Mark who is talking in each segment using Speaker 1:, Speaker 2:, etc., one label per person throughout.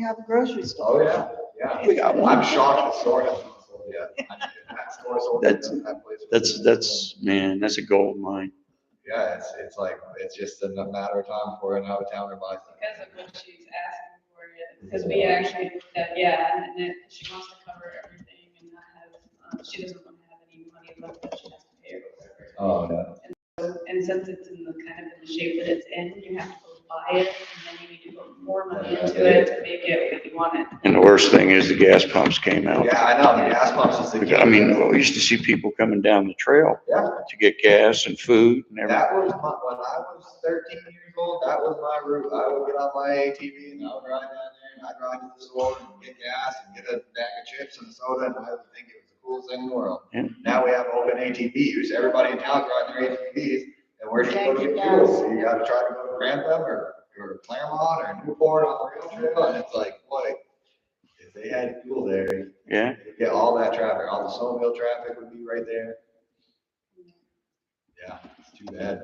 Speaker 1: you have a grocery
Speaker 2: Oh,
Speaker 1: store.
Speaker 2: yeah, yeah.
Speaker 3: We got
Speaker 2: I'm
Speaker 3: one.
Speaker 2: shocked the store hasn't sold yet. That store's open,
Speaker 3: That's-
Speaker 2: that place was-
Speaker 3: That's, that's, man, that's a gold mine.
Speaker 2: Yeah, it's, it's like, it's just a matter of time before an out of towner buys it.
Speaker 4: Because of what she's asking for it, because we actually, looked at- yeah, and it, she wants to cover everything and not have, um, she doesn't want to have any money left that she has to pay or whatever.
Speaker 2: Oh, yeah.
Speaker 4: So, And since it's in the kind of in the shape that it's in, you have to go buy it and then you need to put more money into it to make it what you want it.
Speaker 3: And the worst thing is the gas pumps came out.
Speaker 2: Yeah, I know, the gas pumps is the.
Speaker 3: I mean, well, we used to see people coming down the trail
Speaker 2: Yeah.
Speaker 3: to get gas and food and everything.
Speaker 2: That was my, when I was thirteen years old, that was my route. I would get on my ATV and I would ride down there and I'd ride to the store and get gas and get a bag of chips and a soda and I would think it was the coolest thing in the world.
Speaker 3: Yeah.
Speaker 2: Now we have open ATVs. Everybody in town's riding their ATVs and where's you go to get fuel? You gotta try to go to Grantham or, or Claremont or Newport on the rail trail and it's like, boy, if they had fuel there,
Speaker 3: Yeah,
Speaker 2: you'd get all that traffic, all the snowmobile traffic would be right there. Yeah, it's too bad.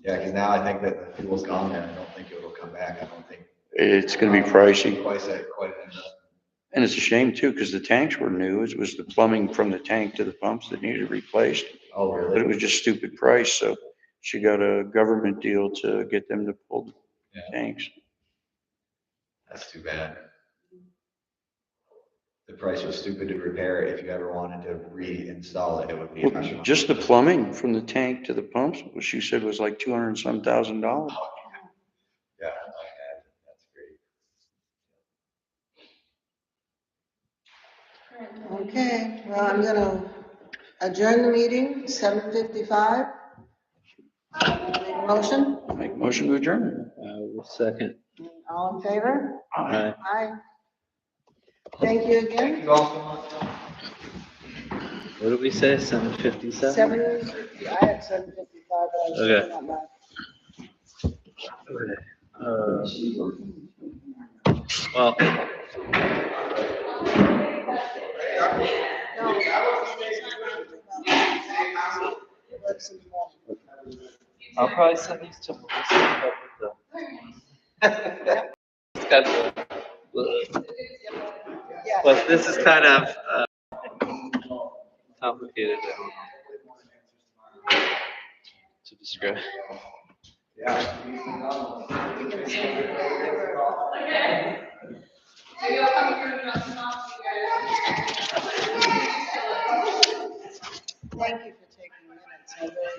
Speaker 2: Yeah, because now I think that the fuel's gone there. I don't think it'll come back. I don't think.
Speaker 3: it's gonna be pricey.
Speaker 2: Quite that, quite an investment.
Speaker 3: And it's a shame too, because the tanks were new. It was the plumbing from the tank to the pumps that needed replaced.
Speaker 2: Oh,
Speaker 3: But it
Speaker 2: really?
Speaker 3: was just stupid price, so she got a government deal to get them to pull the
Speaker 2: Yeah.
Speaker 3: tanks.
Speaker 2: That's too bad. The price was stupid to repair. it. If you ever wanted to reinstall it, it would be. a
Speaker 3: Well,
Speaker 2: hundred
Speaker 3: Just the
Speaker 2: bucks.
Speaker 3: plumbing from the tank to the pumps, which she said was like two hundred and some thousand dollars.
Speaker 2: Yeah, I had, that's great.
Speaker 1: Okay, well, I'm gonna adjourn the meeting, seven fifty-five. Make a motion,
Speaker 3: Make motion to adjourn.
Speaker 5: Uh, second.
Speaker 1: all in favor?
Speaker 5: Aye.
Speaker 1: Aye. Thank you
Speaker 2: Thank
Speaker 1: again.
Speaker 2: you all so much.
Speaker 5: What did we say? Seven fifty-seven?
Speaker 1: Seven, I had seven fifty-five, but I was
Speaker 5: Okay.
Speaker 1: looking at my.
Speaker 5: Uh, well, I'll probably send these to Melissa. but, uh, schedule. But uh, this is kind of, uh, complicated I don't know, to describe.
Speaker 1: Thank you for taking minutes, I really